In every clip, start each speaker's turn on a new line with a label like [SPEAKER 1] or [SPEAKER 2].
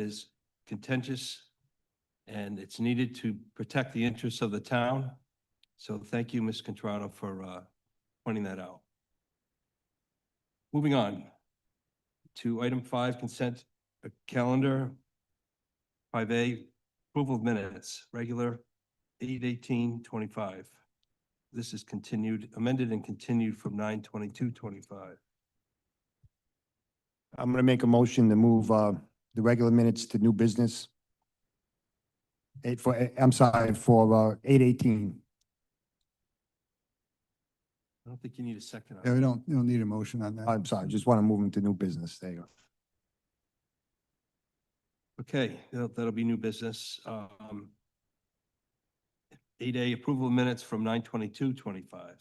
[SPEAKER 1] is contentious and it's needed to protect the interests of the town. So thank you, Ms. Contrado, for uh, pointing that out. Moving on to item five, consent uh, calendar. Five A, approval of minutes, regular eight eighteen twenty-five. This is continued, amended and continued from nine twenty-two twenty-five.
[SPEAKER 2] I'm going to make a motion to move uh, the regular minutes to new business. Eight for, eh, I'm sorry, for uh, eight eighteen.
[SPEAKER 1] I don't think you need a second. on
[SPEAKER 3] Yeah,
[SPEAKER 1] that.
[SPEAKER 3] we don't, we don't need a motion on that.
[SPEAKER 2] I'm sorry, just want to move them to new business. There you go.
[SPEAKER 1] Okay, that'll, that'll be new business. Um, eight A, approval of minutes from nine twenty-two twenty-five.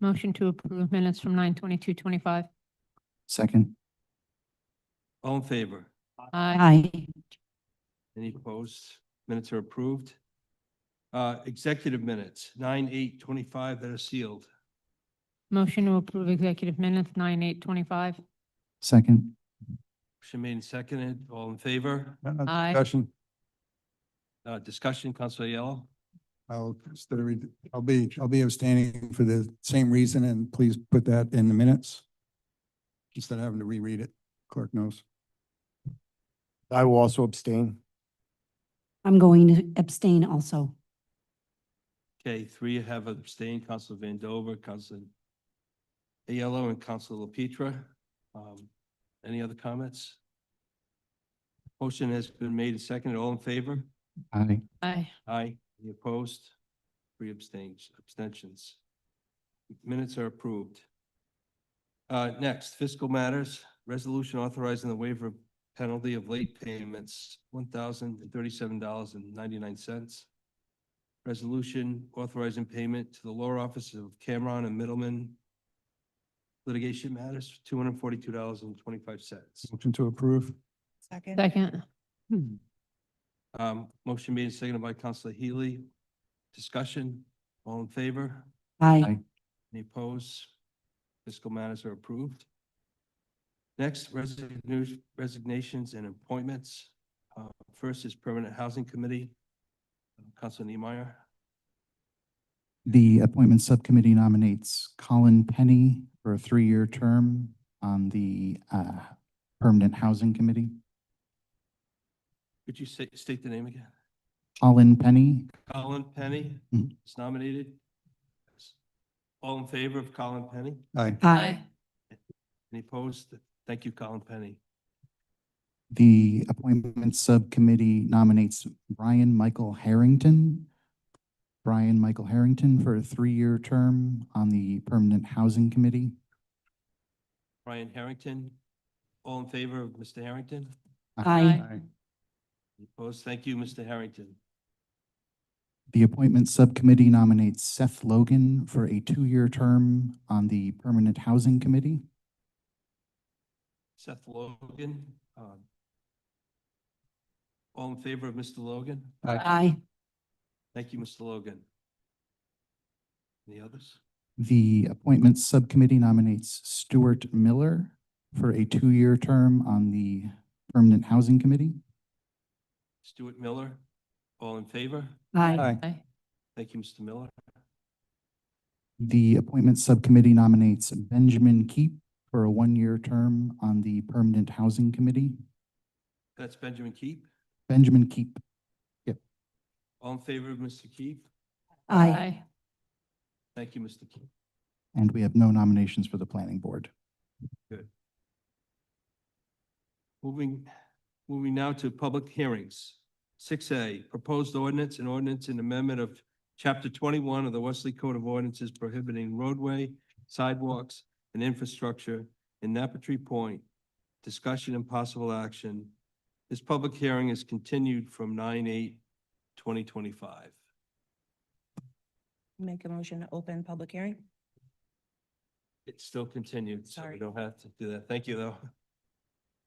[SPEAKER 4] Motion to approve minutes from nine twenty-two twenty-five.
[SPEAKER 3] Second.
[SPEAKER 1] All in favor?
[SPEAKER 4] Aye.
[SPEAKER 1] Any opposed? Minutes are approved. Uh, executive minutes, nine eight twenty-five that are sealed.
[SPEAKER 4] Motion to approve executive minutes nine eight twenty-five.
[SPEAKER 3] Second.
[SPEAKER 1] Motion made and seconded. All in favor?
[SPEAKER 4] Aye.
[SPEAKER 3] Discussion.
[SPEAKER 1] Uh, discussion, Counselor Yellow?
[SPEAKER 3] I'll consider, re- I'll be, I'll be abstaining for the same reason and please put that in the minutes. Instead of having to reread it, clerk knows.
[SPEAKER 2] I will also abstain.
[SPEAKER 5] I'm going to abstain also.
[SPEAKER 1] Okay, three have abstained, Counselor Vandover, Counselor Aiello, and Counselor LaPetra. Um, any other comments? Motion has been made and seconded. All in favor?
[SPEAKER 3] Aye.
[SPEAKER 4] Aye.
[SPEAKER 1] Aye. Any opposed? Three abstains, abstentions. Minutes are approved. Uh, next, fiscal matters, resolution authorizing the waiver of penalty of late payments, one thousand and thirty-seven dollars and ninety-nine cents. Resolution authorizing payment to the lower offices of Cameron and Middleman. Litigation matters, two hundred and forty-two dollars and twenty-five cents.
[SPEAKER 3] Motion to approve.
[SPEAKER 6] Second.
[SPEAKER 4] Second.
[SPEAKER 1] Um, motion made and seconded by Counselor Healy. Discussion, all in favor?
[SPEAKER 5] Aye.
[SPEAKER 1] Any opposed? Fiscal matters are approved. Next, resignu- resignations and appointments. Uh, First is Permanent Housing Committee. Council Niemeyer,
[SPEAKER 7] The appointment subcommittee nominates Colin Penny for a three-year term on the uh, Permanent Housing Committee.
[SPEAKER 1] could you say- state the name again?
[SPEAKER 7] Colin Penny,
[SPEAKER 1] Colin Penny
[SPEAKER 7] Mhm.
[SPEAKER 1] is nominated. All in favor of Colin Penny?
[SPEAKER 3] Aye.
[SPEAKER 5] Aye.
[SPEAKER 1] Any opposed? Thank you, Colin Penny.
[SPEAKER 7] the appointment subcommittee nominates Brian Michael Harrington. Brian Michael Harrington for a three-year term on the Permanent Housing Committee.
[SPEAKER 1] Brian Harrington, all in favor of Mr. Harrington?
[SPEAKER 5] Aye.
[SPEAKER 1] Any Opposed? Thank you, Mr. Harrington.
[SPEAKER 7] The appointment subcommittee nominates Seth Logan for a two-year term on the Permanent Housing Committee.
[SPEAKER 1] Seth Logan. um, All in favor of Mr. Logan?
[SPEAKER 5] Aye.
[SPEAKER 1] Thank you, Mr. Logan. Any others?
[SPEAKER 7] The Appointments Subcommittee nominates Stuart Miller for a two-year term on the Permanent Housing Committee.
[SPEAKER 1] Stuart Miller, all in favor?
[SPEAKER 5] Aye.
[SPEAKER 4] Aye.
[SPEAKER 1] Thank you, Mr. Miller.
[SPEAKER 7] The Appointments Subcommittee nominates Benjamin Keep for a one-year term on the Permanent Housing Committee.
[SPEAKER 1] That's Benjamin Keep.
[SPEAKER 7] Benjamin Keep,
[SPEAKER 1] All in favor of Mr. Keep?
[SPEAKER 5] Aye.
[SPEAKER 1] Thank you, Mr. Keep.
[SPEAKER 7] and we have no nominations for the Planning Board.
[SPEAKER 1] Moving, moving now to public hearings. Six A, proposed ordinance and ordinance and amendment of chapter twenty-one of the Wesley Code of Ordinances prohibiting roadway, sidewalks, and infrastructure in Napatri Point. Discussion and possible action. This public hearing is continued from 9-8-2025.
[SPEAKER 6] Make a motion to open public hearing?
[SPEAKER 1] It's still continued, so we
[SPEAKER 6] Sorry.
[SPEAKER 1] don't have to do that. Thank you, though.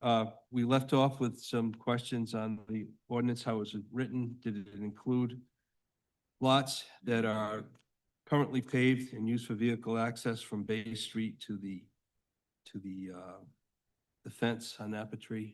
[SPEAKER 1] Uh, we left off with some questions on the ordinance, how was it written? Did it include lots that are currently paved and used for vehicle access from Bay Street to the, to the, uh, the fence on Apple Tree